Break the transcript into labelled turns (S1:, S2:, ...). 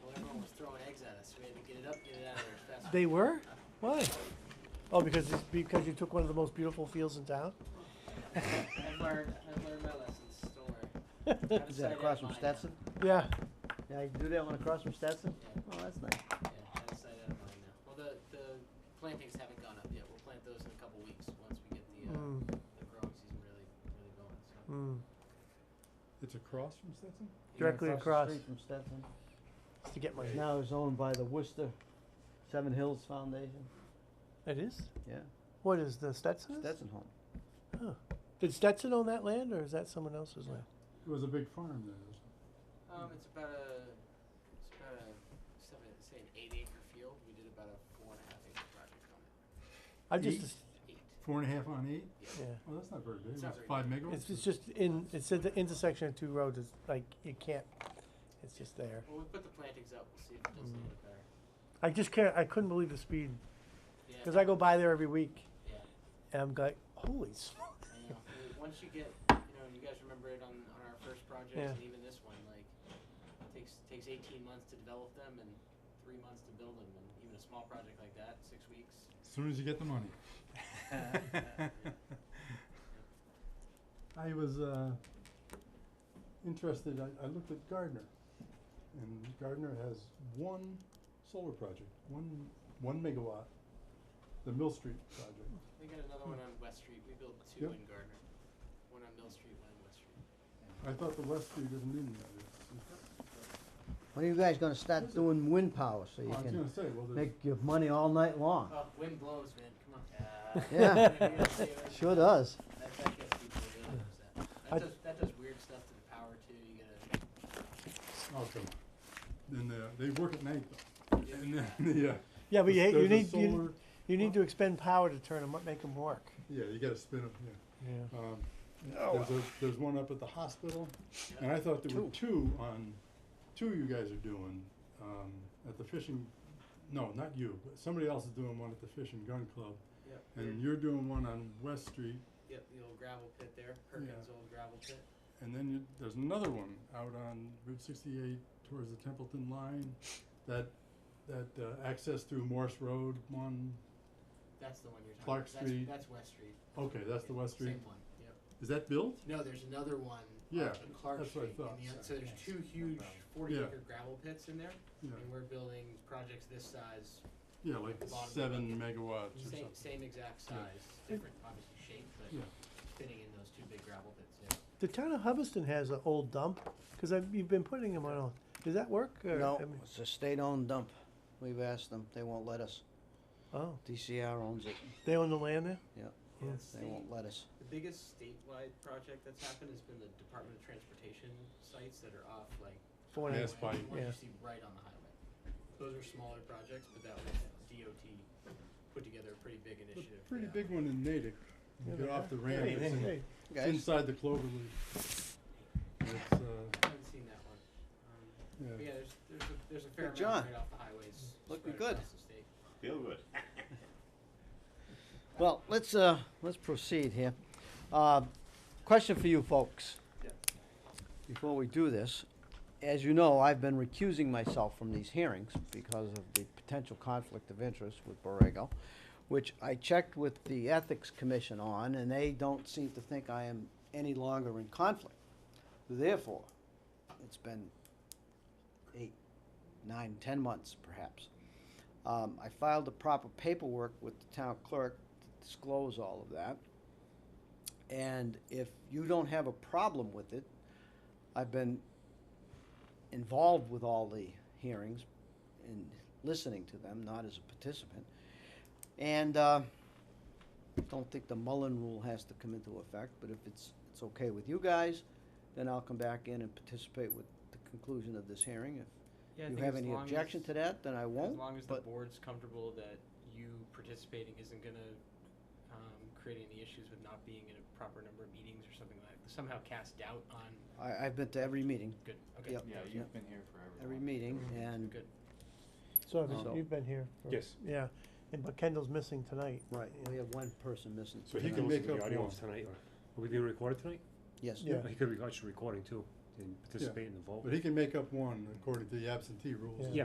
S1: We had to get it up, get it out of there as fast as
S2: They were? Why? Oh, because it's because you took one of the most beautiful fields in town?
S1: I've learned, I've learned my lessons, don't worry.
S3: Is that across from Stetson?
S2: Yeah.
S3: Yeah, you do that one across from Stetson?
S1: Yeah.
S3: Oh, that's nice.
S1: Yeah, I decided out of mine now. Well, the, the plantings haven't gone up yet. We'll plant those in a couple weeks, once we get the, uh,
S3: Hmm.
S2: Mm,
S1: the growing season really, really going, so.
S2: mm.
S4: It's across from Stetson?
S2: Directly
S3: Yeah,
S2: across.
S3: the street from Stetson.
S2: It's to get my.
S3: It's now it's owned by the Worcester Seven Hills Foundation.
S2: It is?
S3: Yeah,
S2: What is the Stetson's?
S3: Stetson home.
S2: Huh. Did Stetson own that land or is that someone else's land?
S4: It was a big farm there. wasn't
S1: Um, it's about a, it's about a, seven, say an eight acre field. We did about a four and a half acre project on it.
S2: I just,
S4: Ye-
S2: as-
S1: Eight,
S4: it? Four and a half on eight?
S2: yeah.
S4: Oh, that's not very big.
S1: It's
S4: It's
S1: not very
S4: five
S1: big.
S4: megawatts?
S2: It's, it's just in, it's at the intersection of two roads. It's like, you can't, it's just there.
S1: Well, we put the plantings up. We'll see if it does a little
S3: Hmm.
S1: bit better.
S2: I just can't, I couldn't believe the speed.
S1: Yeah.
S2: Because I go by there every week
S1: Yeah.
S2: and I'm like, holy smoke.
S1: I know. Well, Once you get, you know, you guys remember it on, on our first project
S2: Yeah.
S1: and even this one, like, it takes, takes eighteen months to develop them and three months to build them, and even a small project like that, six weeks.
S4: As soon as you get the money. I was uh, interested, I, I looked at Gardner. And Gardner has one solar project, one, one megawatt, the Mill Street project.
S1: They got another one on West Street. We built two
S4: Hmm. Yep.
S1: in Gardner, one on Mill Street, one on West Street.
S4: I thought the West Street isn't in that. It's-
S3: When are you guys gonna start doing wind power so you
S4: I was
S3: can
S4: gonna say, well, there's.
S3: make your money all night long?
S1: Oh, wind blows, man. Come on. Uh,
S3: Yeah. Sure does.
S1: That, that gets people really upset. That
S2: I-
S1: does, that does weird stuff to the power too. You gotta.
S4: Oh, come on. And uh, they work at night though.
S1: Yeah.
S4: And then, yeah.
S2: Yeah, but you,
S4: There's-
S2: you
S4: there's
S2: need,
S4: a
S2: you,
S4: solar-
S2: you need to expend power to turn them, make them work.
S4: Yeah, you gotta spin them, yeah.
S2: Yeah.
S4: Um, there's a, there's one up at the hospital, and I thought there were two on, two you guys are doing, um, at the fishing, no, not you, but somebody else is doing one at the Fish and Gun Club,
S1: Yep.
S2: Mm.
S4: and you're doing one on West Street,
S1: Yep. The old gravel pit there, Perkins old gravel pit.
S4: and then you, there's another one out on Route sixty-eight towards the Templeton line, that, that, uh, access through Morse Road one,
S1: That's the one you're talking.
S4: Clark
S1: about. That's-
S4: Street.
S1: That's, West Street.
S4: okay, that's the West Street,
S1: Same one. Yep.
S4: is that built?
S1: No, there's another one.
S4: Yeah,
S1: up in Clark
S4: that's what I
S1: Street. and
S4: thought.
S1: the oth- so there's two huge 40
S4: Yeah.
S1: acre gravel pits in there,
S4: Yeah,
S1: and we're building projects this size
S4: yeah, like
S1: Bottom of the
S4: seven megawatts or
S1: Same,
S4: something.
S1: same exact
S4: Yeah.
S1: size, different obviously shape, but
S4: Yeah.
S1: fitting in those two big gravel pits, yeah.
S2: The town of Hubbardston has an old dump, because you've been putting them on, all- does that work? or-
S3: No,
S2: I mean-
S3: it's a state-owned dump. We've asked them, they won't let us.
S2: Oh,
S3: DCR owns it,
S2: they own the land there? Yeah.
S3: they
S1: State-
S3: won't let us.
S1: The biggest statewide project that's happened has been the Department of Transportation sites that are off like.
S2: Four and a
S1: highway,
S4: Yes, by-
S1: the ones
S2: Yeah.
S1: you see right on the highway. Those are smaller projects, but that was DOT put together a pretty big
S4: A
S1: initiative.
S4: pretty
S1: yeah.
S4: big one in Natick.
S2: Yeah,
S4: You get
S2: they
S4: off the ramp,
S2: Hey,
S4: it's, in-
S2: hey,
S4: it's
S3: Guys,
S4: inside the clover leaf. It's, uh,
S1: I haven't seen that one. Um, but
S4: yeah,
S1: yeah, there's, there's a, there's a fair
S3: Hey, John.
S1: amount right off the highways.
S3: Mm, Looking
S1: spread
S3: good.
S1: across the state.
S5: Feel good.
S3: well, let's, uh, let's proceed here. Uh, question for you folks.
S1: Yeah.
S3: Before we do this, as you know, I've been recusing myself from these hearings because of the potential conflict of interest with Borrego, which I checked with the Ethics Commission on, and they don't seem to think I am any longer in conflict. Therefore, it's been eight, nine, ten months perhaps. Um, I filed the proper paperwork with the town clerk to disclose all of that. And if you don't have a problem with it, I've been involved with all the hearings and listening to them, not as a participant. And uh, don't think the Mullen rule has to come into effect, but if it's, it's okay with you guys, then I'll come back in and participate with the conclusion of this hearing.
S1: Yeah, I
S3: If you
S1: think
S3: have
S1: as
S3: any
S1: long
S3: objection
S1: as-
S3: to that, then I won't.
S1: As long as the
S3: but-
S1: board's comfortable that you participating isn't gonna, um, create any issues with not being in a proper number of meetings or something like, somehow cast doubt on,
S3: I, I've been to every meeting,
S1: good, okay.
S3: Yep.
S5: Yeah, you've been here forever.
S3: every meeting, and,
S1: Good.
S2: So have
S3: So-
S2: you- you've been here? for-
S6: Yes.
S2: Yeah, and, but Kendall's missing tonight.
S3: right, we have one person missing.
S4: So he
S3: tonight.
S4: can make
S6: listen to
S4: up
S6: the audio
S4: one.
S6: tonight. Are we being recorded tonight?
S3: Yes,
S2: Yeah.
S6: He could be actually recording too and participate in the vote.
S4: but he can make up one according to the absentee rules.
S2: Yeah.